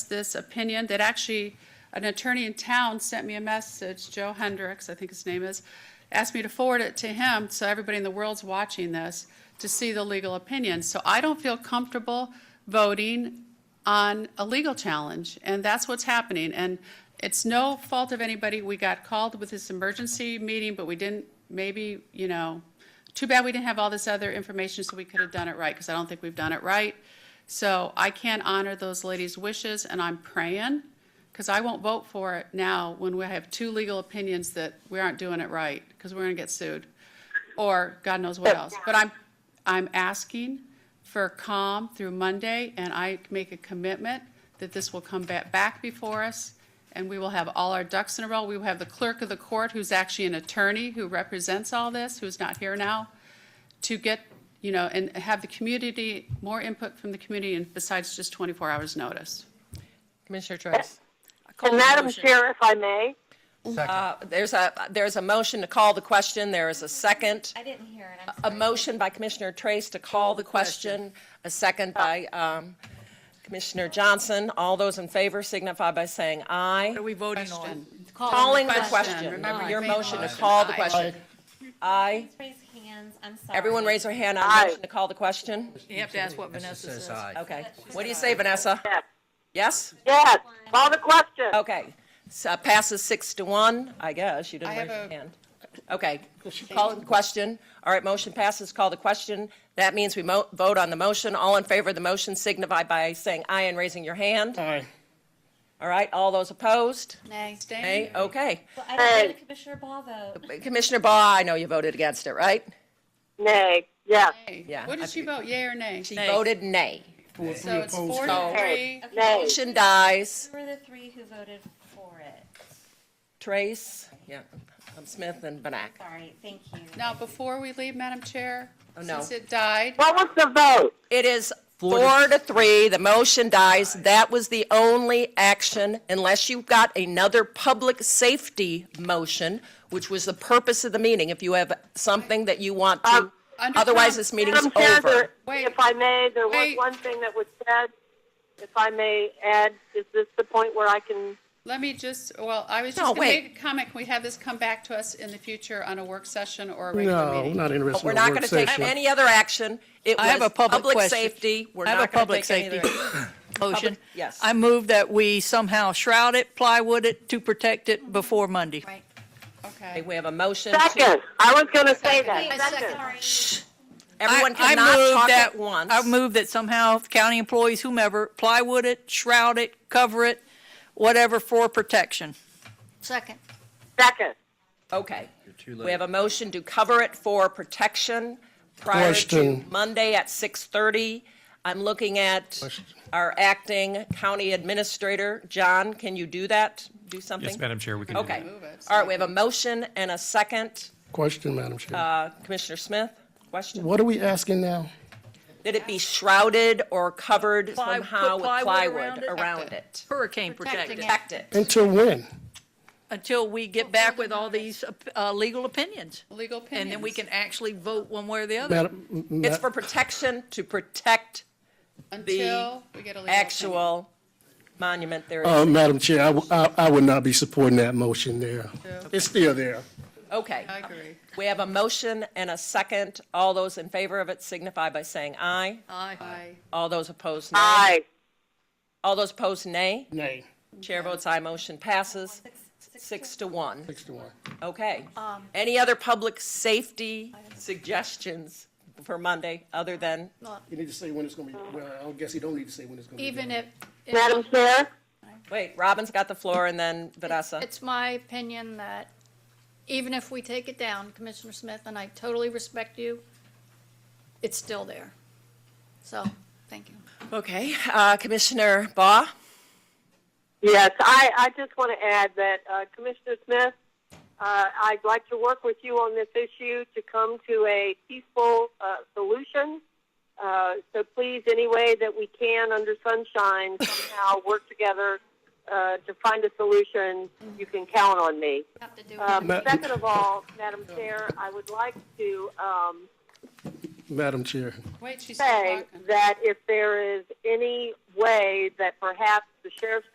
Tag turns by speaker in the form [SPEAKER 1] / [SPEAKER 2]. [SPEAKER 1] this opinion that actually an attorney in town sent me a message, Joe Hendricks, I think his name is, asked me to forward it to him, so everybody in the world's watching this, to see the legal opinion. So I don't feel comfortable voting on a legal challenge, and that's what's happening. And it's no fault of anybody. We got called with this emergency meeting, but we didn't, maybe, you know, too bad we didn't have all this other information so we could have done it right, because I don't think we've done it right. So I can't honor those ladies' wishes, and I'm praying, because I won't vote for it now when we have two legal opinions that we aren't doing it right, because we're going to get sued, or God knows what else. But I'm, I'm asking for calm through Monday, and I make a commitment that this will come back, back before us, and we will have all our ducks in a row. We will have the clerk of the court, who's actually an attorney who represents all this, who's not here now, to get, you know, and have the community, more input from the community, and besides just 24 hours' notice.
[SPEAKER 2] Commissioner Trace.
[SPEAKER 3] I call
[SPEAKER 4] And
[SPEAKER 3] the
[SPEAKER 4] Madam
[SPEAKER 3] motion.
[SPEAKER 4] Chair, if I may,
[SPEAKER 2] Uh, There's a, there's a motion to call the question. There is a second.
[SPEAKER 5] I didn't hear it.
[SPEAKER 2] A
[SPEAKER 5] I'm sorry.
[SPEAKER 2] motion by Commissioner Trace to call the question, a second by um, Commissioner Johnson. All those in favor signify by saying aye.
[SPEAKER 3] What are we voting on?
[SPEAKER 1] Question.
[SPEAKER 2] Calling the
[SPEAKER 1] Question.
[SPEAKER 2] question.
[SPEAKER 1] Remember,
[SPEAKER 2] Your
[SPEAKER 1] aye.
[SPEAKER 2] motion to
[SPEAKER 1] Aye.
[SPEAKER 2] call the
[SPEAKER 1] Aye.
[SPEAKER 2] question. Aye.
[SPEAKER 5] Please raise hands. I'm sorry.
[SPEAKER 2] Everyone raise their hand on
[SPEAKER 4] Aye.
[SPEAKER 2] motion to call the question.
[SPEAKER 3] You have to ask what Vanessa says.
[SPEAKER 2] Okay. What do you say, Vanessa?
[SPEAKER 4] yes,
[SPEAKER 2] Yes? Oh.
[SPEAKER 4] yes, call the question.
[SPEAKER 2] Okay. So passes six to one, I guess. You didn't
[SPEAKER 1] I have
[SPEAKER 2] raise your
[SPEAKER 1] a-
[SPEAKER 2] hand. Okay. Call the question. All right, motion passes. Call the question. That means we mo- vote on the motion. All in favor of the motion signify by saying aye and raising your hand.
[SPEAKER 6] Aye.
[SPEAKER 2] All right, all those opposed?
[SPEAKER 5] Nay.
[SPEAKER 2] Nay? Okay.
[SPEAKER 5] Well, I didn't hear the Commissioner Ball vote.
[SPEAKER 2] Commissioner Baugh, I know you voted against it, right?
[SPEAKER 4] Nay, yes,
[SPEAKER 2] Yeah.
[SPEAKER 1] What did she vote, yea or nay?
[SPEAKER 2] She voted nay.
[SPEAKER 6] Four,
[SPEAKER 1] So
[SPEAKER 6] three
[SPEAKER 1] it's four
[SPEAKER 6] opposed.
[SPEAKER 2] Oh.
[SPEAKER 1] to three.
[SPEAKER 4] nay,
[SPEAKER 2] Motion dies.
[SPEAKER 5] Who were the three who voted for it?
[SPEAKER 2] Trace, yeah, um, Smith and Benak.
[SPEAKER 5] Sorry, thank you.
[SPEAKER 1] Now, before we leave, Madam Chair,
[SPEAKER 2] Oh, no.
[SPEAKER 1] since it died,
[SPEAKER 4] what was the vote?
[SPEAKER 2] It is four to three, the motion dies. That was the only action, unless you've got another public safety motion, which was the purpose of the meeting, if you have something that you want to,
[SPEAKER 4] Um,
[SPEAKER 1] Under
[SPEAKER 2] otherwise
[SPEAKER 1] Trump-
[SPEAKER 2] this meeting's
[SPEAKER 4] Madam Chair,
[SPEAKER 2] over.
[SPEAKER 4] there-
[SPEAKER 1] Wait.
[SPEAKER 4] if I may, there was
[SPEAKER 1] Wait.
[SPEAKER 4] one thing that was said, if I may add, is this the point where I can,
[SPEAKER 1] Let me just, well, I was
[SPEAKER 2] No,
[SPEAKER 1] just gonna
[SPEAKER 2] wait.
[SPEAKER 1] make a comment. Can we have this come back to us in the future on a work session or a regular
[SPEAKER 6] No,
[SPEAKER 1] meeting?
[SPEAKER 6] we're not interested
[SPEAKER 2] We're
[SPEAKER 6] in a
[SPEAKER 2] not
[SPEAKER 6] work
[SPEAKER 2] going to take
[SPEAKER 6] session.
[SPEAKER 2] any other action. It
[SPEAKER 3] I have
[SPEAKER 2] was
[SPEAKER 3] a public question.
[SPEAKER 2] safety, we're
[SPEAKER 3] I have a
[SPEAKER 2] not going to
[SPEAKER 3] public
[SPEAKER 2] take any other.
[SPEAKER 3] safety. Motion.
[SPEAKER 2] yes.
[SPEAKER 3] I move that we somehow shroud it, plywood it to protect it before Monday.
[SPEAKER 5] Right.
[SPEAKER 2] Okay,
[SPEAKER 1] Okay.
[SPEAKER 2] We have a motion. to-
[SPEAKER 4] second, I was going to say
[SPEAKER 5] Wait,
[SPEAKER 4] that, second.
[SPEAKER 5] sorry.
[SPEAKER 2] Everyone
[SPEAKER 3] I- I
[SPEAKER 2] cannot
[SPEAKER 3] move
[SPEAKER 2] talk
[SPEAKER 3] that-
[SPEAKER 2] at once.
[SPEAKER 3] I move that somehow county employees, whomever, plywood it, shroud it, cover it, whatever for protection.
[SPEAKER 5] Second.
[SPEAKER 4] Second,
[SPEAKER 2] Okay.
[SPEAKER 7] too
[SPEAKER 2] We
[SPEAKER 7] late.
[SPEAKER 2] have a motion to cover it for protection prior to
[SPEAKER 6] Question.
[SPEAKER 2] Monday at 6:30. I'm looking at our acting county administrator. John, can you do that? Do something?
[SPEAKER 8] Yes, Madam Chair, we can do that.
[SPEAKER 2] Okay.
[SPEAKER 1] Move it.
[SPEAKER 2] All right, we have a motion and a second.
[SPEAKER 6] Question, Madam Chair.
[SPEAKER 2] Uh, Commissioner Smith, question?
[SPEAKER 6] What are we asking now?
[SPEAKER 2] Did it be shrouded or covered
[SPEAKER 3] Ply- put
[SPEAKER 2] somehow with
[SPEAKER 3] plywood
[SPEAKER 2] plywood
[SPEAKER 3] around it?
[SPEAKER 2] around it?
[SPEAKER 3] Hurricane protected,
[SPEAKER 2] Protect it.
[SPEAKER 6] Until when?
[SPEAKER 3] until we get back with all these uh, legal opinions.
[SPEAKER 1] Legal opinions.
[SPEAKER 3] And then we can actually vote one way or the other.
[SPEAKER 6] Madam, m-
[SPEAKER 2] It's
[SPEAKER 6] ma-
[SPEAKER 2] for protection to protect
[SPEAKER 1] Until we get a legal opinion.
[SPEAKER 2] actual monument there.
[SPEAKER 6] uh, Madam Chair, I w- I, I would not be supporting that motion there. It's still there.
[SPEAKER 2] Okay.
[SPEAKER 1] I agree.
[SPEAKER 2] We have a motion and a second. All those in favor of it signify by saying aye.
[SPEAKER 1] Aye.
[SPEAKER 2] All those opposed, nay.
[SPEAKER 4] aye,
[SPEAKER 2] All those opposed, nay.
[SPEAKER 6] Nay.
[SPEAKER 2] Chair votes aye, motion passes six to one. Um,
[SPEAKER 6] Six to one.
[SPEAKER 2] Okay. Any other public safety suggestions for Monday other than,
[SPEAKER 6] You need to say when it's going to be, well, I guess you don't need to say when it's going to be.
[SPEAKER 9] Even
[SPEAKER 6] done.
[SPEAKER 9] if,
[SPEAKER 4] Madam Chair,
[SPEAKER 2] wait, Robin's got the floor and then Vanessa.
[SPEAKER 9] it's my opinion that even if we take it down, Commissioner Smith, and I totally respect you, it's still there. So, thank you.
[SPEAKER 2] Okay, uh, Commissioner Baugh?
[SPEAKER 4] yes, I, I just want to add that uh, Commissioner Smith, uh, I'd like to work with you on this issue to come to a peaceful uh, solution. Uh, so please, any way that we can under sunshine, somehow work together uh, to find a solution. You can count on me.
[SPEAKER 9] Have to do it.
[SPEAKER 4] Um,
[SPEAKER 6] Ma-
[SPEAKER 4] second of all, Madam Chair, I would like to um,
[SPEAKER 6] Madam Chair.
[SPEAKER 1] Wait, she's still
[SPEAKER 4] say
[SPEAKER 1] talking.
[SPEAKER 4] that if there is any way that perhaps the sheriff's